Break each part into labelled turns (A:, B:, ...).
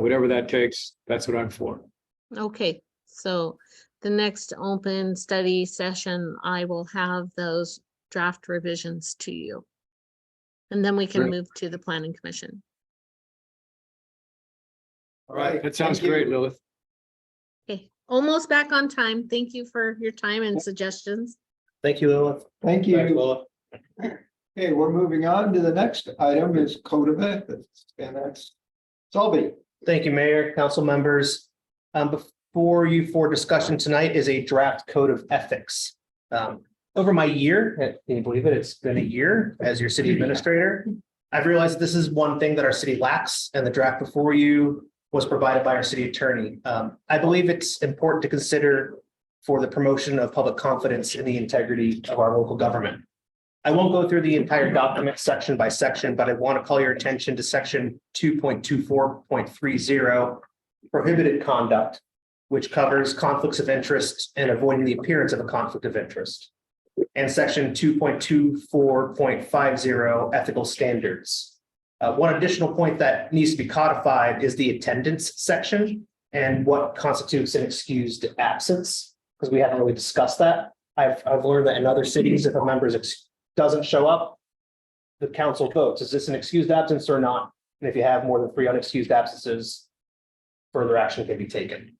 A: Whatever that takes, that's what I'm for.
B: Okay, so the next open study session, I will have those draft revisions to you. And then we can
A: Great.
B: move to the planning commission.
C: All right.
A: That sounds
C: thank you.
A: great, Lilith.
B: Okay, almost back on time. Thank you for your time and suggestions.
D: Thank you, Lilith.
C: Thank
D: Thanks,
C: you.
D: Lilith.
C: Okay, we're moving on to the next item is code of ethics and that's Solby.
D: Thank you, Mayor, council members. Um, before you for discussion tonight is a draft code of ethics. Um, over my year, eh, can you believe it? It's been a year as your city administrator. I've realized this is one thing that our city lacks and the draft before you was provided by our city attorney. Um, I believe it's important to consider for the promotion of public confidence in the integrity of our local government. I won't go through the entire document section by section, but I want to call your attention to section two point two four point three zero prohibited conduct, which covers conflicts of interest and avoiding the appearance of a conflict of interest. And section two point two four point five zero ethical standards. Uh, one additional point that needs to be codified is the attendance section and what constitutes an excused absence, because we haven't really discussed that. I've, I've learned that in other cities, if a member is ex- doesn't show up, the council votes, is this an excused absence or not? And if you have more than three unexcused absences, further action can be taken.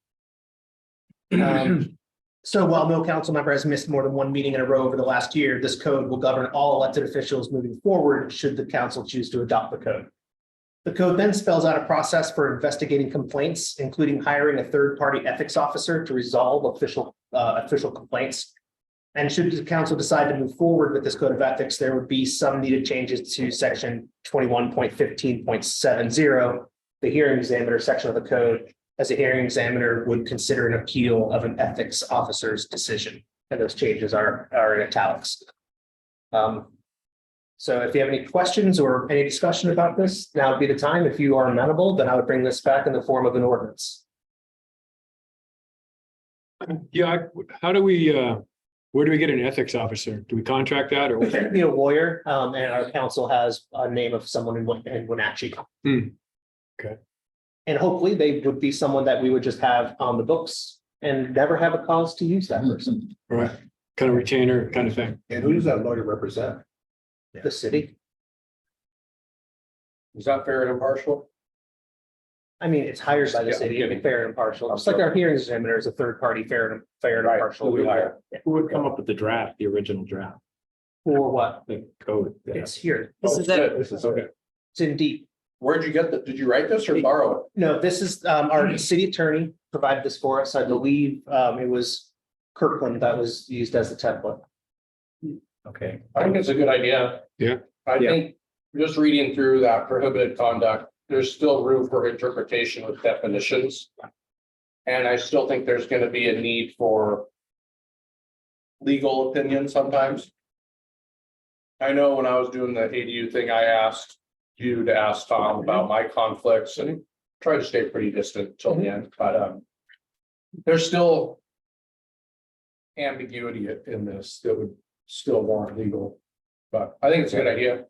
D: Um, So while no council member has missed more than one meeting in a row over the last year, this code will govern all elected officials moving forward should the council choose to adopt the code. The code then spells out a process for investigating complaints, including hiring a third-party ethics officer to resolve official, uh, official complaints. And should the council decide to move forward with this code of ethics, there would be some needed changes to section twenty-one point fifteen point seven zero. The hearing examiner section of the code, as a hearing examiner would consider an appeal of an ethics officer's decision. And those changes are, are in italics. Um, So if you have any questions or any discussion about this, now would be the time. If you are amenable, then I would bring this back in the form of an ordinance.
A: Yeah, I- how do we, uh, where do we get an ethics officer? Do we contract that or?
D: We should be a lawyer, um, and our council has a name of someone in Win- in Wenatchee.
A: Hmm. Okay.
D: And hopefully they would be someone that we would just have on the books and never have a cause to use that person,
A: Right, kind of retainer kind of thing.
E: And who does that lawyer represent? Hmm.
D: the city.
E: Is that fair and impartial?
D: I mean, it's hired by the
E: Yeah,
D: city,
E: yeah.
D: to be fair and impartial, just like our hearing examiner is a third party, fair and fair and
E: Right,
D: impartial.
E: who we hire.
F: Who would come up with the draft, the original draft,
D: For what?
F: the code? that-
D: It's here,
E: This is it. This is okay.
D: it's in deep.
E: Oh, Where'd you get the, did you write this or borrow
D: No, this is, um,
E: Hmm.
D: our city attorney provided this for us. I believe, um, it was Kirkland that was used as the template.
F: Okay,
E: it? I think it's a good idea.
A: Yeah.
E: I
F: Yeah.
E: think just reading through that prohibited conduct, there's still room for interpretation with definitions. And I still think there's gonna be a need for legal opinion sometimes. I know when I was doing the ADU thing, I asked you to ask Tom about my conflicts and tried to stay pretty distant till the end, but um. There's still. Ambiguity in this that would still warrant legal, but I think it's a good idea.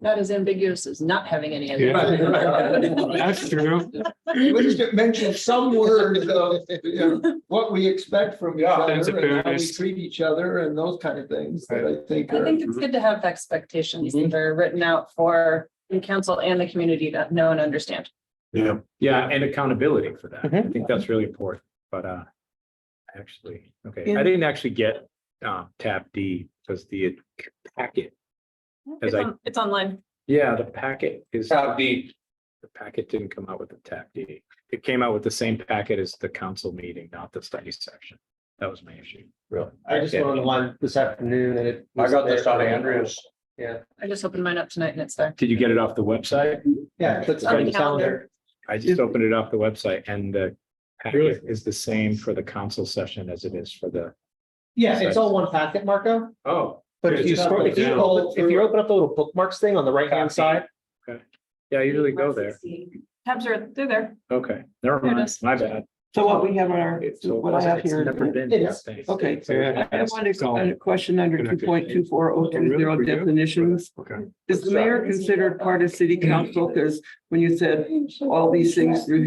G: Not as ambiguous as not having any.
E: Yeah.
A: That's true.
C: We just mentioned some words of, you know, what we expect from each
E: Yeah,
C: other
A: sense of
C: and how we
A: fairness.
C: treat each other and those kind of things that I think
G: I
C: are.
G: think it's good to have expectations that are written out for the council and the community to know and understand.
F: yeah, and accountability for that.
H: Mm-hmm.
F: I think that's really important, but uh. Actually, okay, I didn't actually get uh tab D because the packet, As
G: It's
F: I-
G: on- it's online.
F: yeah, the packet is, the
E: Tab D,
F: packet didn't come out with the tab D. It came out with the same packet as the council meeting, not the study section. That was my issue.
D: Really? I just
F: Yeah.
D: went online this afternoon and it.
E: I got
D: was
E: this
D: there.
E: on Andrews.
G: I just opened mine up tonight and it's there.
F: Did you get it off the website?
D: Yeah, that's
G: On
D: on
G: the
D: the calendar.
F: I just opened it off the website and the packet is the same for the council session as it is for the.
D: Yeah, it's all one packet, Marco.
F: Oh,
D: But
A: Yeah,
D: if you,
A: just scroll
D: if you,
A: down.
D: pull- if you open up the little bookmarks thing on the right hand side,
F: yeah, I usually go there.
G: Tabs are, they're there.
F: Okay, never
G: There it
F: mind.
G: is.
F: My bad.
H: So what we have on our, what I have here.
F: Never been.
H: It is. Okay. I have one ex- I have a question under two point two four oh two zero definitions.
A: Okay.
H: Is the mayor considered part of city council? Because when you said all these things through